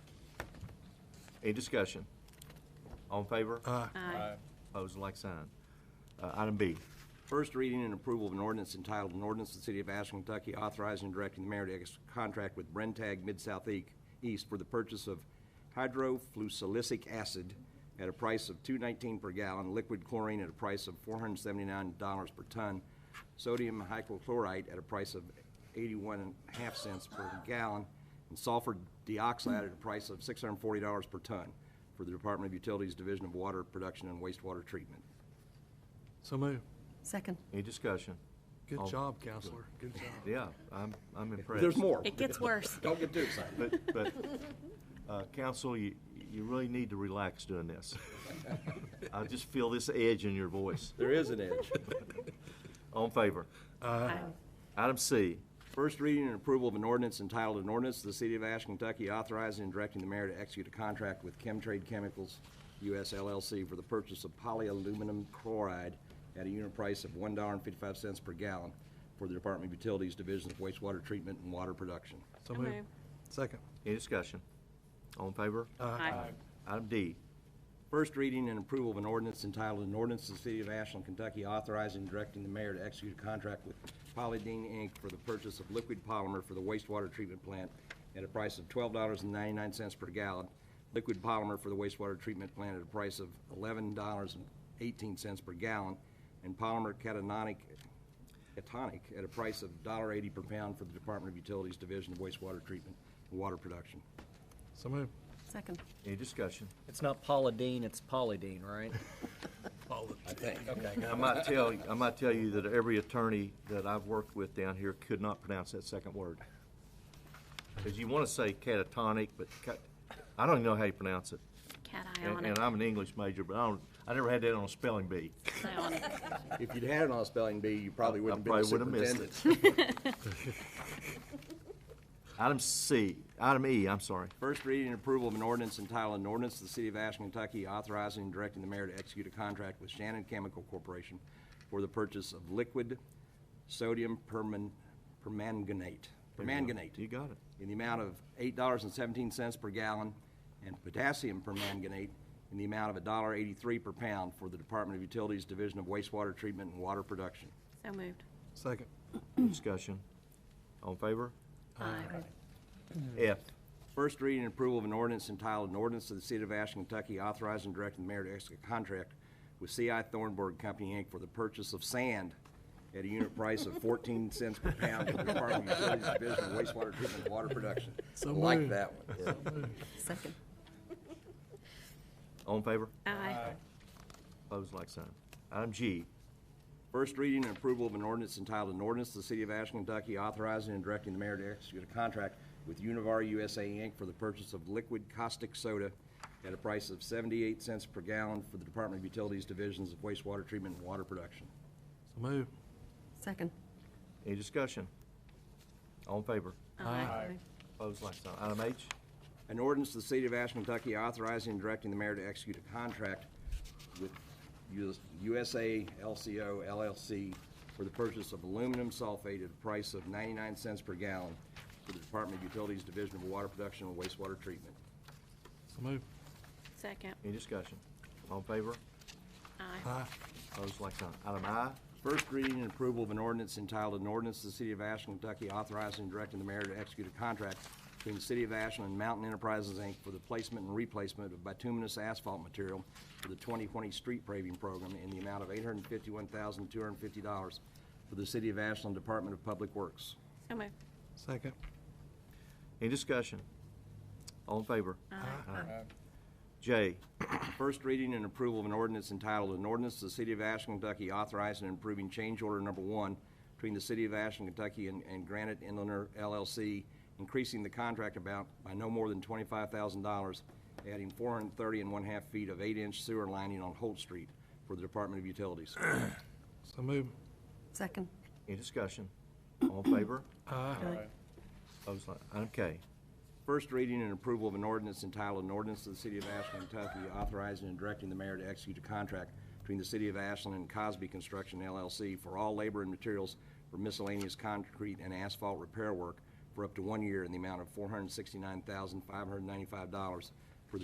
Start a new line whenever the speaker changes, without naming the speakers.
Any discussion? All in favor?
Aye.
Aye.
Opposed, like sign. Uh, Item B,
First reading and approval of an ordinance entitled, an ordinance of the City of Ashland, Kentucky authorizing and directing the mayor to execute a contract with Brentag Mid-South E- East for the purchase of hydrofluosilicic acid at a price of two nineteen per gallon, liquid chlorine at a price of four hundred seventy-nine dollars per ton, sodium hypochlorite at a price of eighty-one and a half cents per gallon, and sulfur dioxide at a price of six hundred and forty dollars per ton for the Department of Utilities Division of Water Production and Wastewater Treatment.
So moved.
Second.
any discussion?
Good
All-
job, counselor. Good job.
Yeah, I'm, I'm impressed.
There's more.
It gets worse.
Don't get too excited.
But, but, uh, counsel, you, you really need to relax doing this. I just feel this edge in your voice.
There is an edge.
All in favor?
Aye.
Item C,
First reading and approval of an ordinance entitled, an ordinance of the City of Ash, Kentucky authorizing and directing the mayor to execute a contract with Chemtrade Chemicals US LLC for the purchase of polyaluminum chloride at a unit price of one dollar and fifty-five cents per gallon for the Department of Utilities Division of Wastewater Treatment and Water Production.
So
So
moved.
moved.
Second.
any discussion? All in favor?
Aye.
Item D,
First reading and approval of an ordinance entitled, an ordinance of the City of Ashland, Kentucky authorizing and directing the mayor to execute a contract with Polydine Inc. for the purchase of liquid polymer for the wastewater treatment plant at a price of twelve dollars and ninety-nine cents per gallon, liquid polymer for the wastewater treatment plant at a price of eleven dollars and eighteen cents per gallon, and polymer catanonic, catonic at a price of $1.80 per pound for the Department of Utilities Division of Wastewater Treatment and Water Production.
So moved.
Second.
any discussion?
It's not Paula Dean, it's Polydine, right? I think. Okay.
I might tell, I might tell you that every attorney that I've worked with down here could not pronounce that second word. Because you want to say catatonic, but cat, I don't even know how you pronounce it.
Cat eye on
And,
it.
and I'm an English major, but I don't, I never had that on a spelling bee.
Eye on it.
If you'd had it on a spelling bee, you probably
I
wouldn't have been
probably
the
would've missed
superintendent.
Item C, item E, I'm sorry.
First reading and approval of an ordinance entitled, an ordinance of the City of Ashland, Kentucky authorizing and directing the mayor to execute a contract with Shannon Chemical Corporation for the purchase of liquid sodium perman- permanganate,
You
permanganate
got it.
in the amount of eight dollars and seventeen cents per gallon and potassium permanganate in the amount of a dollar eighty-three per pound for the Department of Utilities Division of Wastewater Treatment and Water Production.
So moved.
Second.
Discussion. All in favor?
Aye.
F,
First reading and approval of an ordinance entitled, an ordinance of the City of Ashland, Kentucky authorizing and directing the mayor to execute a contract with C.I. Thornburg Company, Inc. for the purchase of sand at a unit price of fourteen cents per pound for the Department of Utilities Division of Wastewater Treatment and Water Production.
So
Like
moved.
that one.
Second.
all in favor?
Aye.
Opposed, like sign. Item G,
First reading and approval of an ordinance entitled, an ordinance of the City of Ashland, Kentucky authorizing and directing the mayor to execute a contract with Univar USA, Inc. for the purchase of liquid caustic soda at a price of seventy-eight cents per gallon for the Department of Utilities Divisions of Wastewater Treatment and Water Production.
So moved.
Second.
any discussion? All in favor?
Aye.
Opposed, like sign. Item H,
An ordinance to the City of Ashland, Kentucky authorizing and directing the mayor to execute a contract with US USA LCO LLC for the purchase of aluminum sulfate at a price of 99 cents per gallon for the Department of Utilities Division of Water Production and Wastewater Treatment.
So moved.
Second.
any discussion? All in favor?
Aye.
Aye.
Opposed, like sign. Item I,
First reading and approval of an ordinance entitled, an ordinance to the City of Ashland, Kentucky authorizing and directing the mayor to execute a contract between the City of Ashland and Mountain Enterprises, Inc. for the placement and replacement of bituminous asphalt material for the 2020 street paving program in the amount of $851,250 for the City of Ashland Department of Public Works.
So moved.
Second.
any discussion? All in favor? Aye. J,
First reading and approval of an ordinance entitled, an ordinance to the City of Ashland, Kentucky authorizing and improving change order number one between the City of Ashland, Kentucky and and Granite Inlander LLC, increasing the contract amount by no more than twenty-five thousand dollars, adding four hundred and thirty and one-half feet of eight-inch sewer lining on Holt Street for the Department of Utilities.
So moved.
Second.
any discussion? All in favor?
Aye.
Opposed, like, item K,
First reading and approval of an ordinance entitled, an ordinance of the City of Ashland, Kentucky authorizing and directing the mayor to execute a contract between the City of Ashland and Cosby Construction LLC for all labor and materials for miscellaneous concrete and asphalt repair work for up to one year in the amount of four hundred sixty-nine thousand, five hundred ninety-five dollars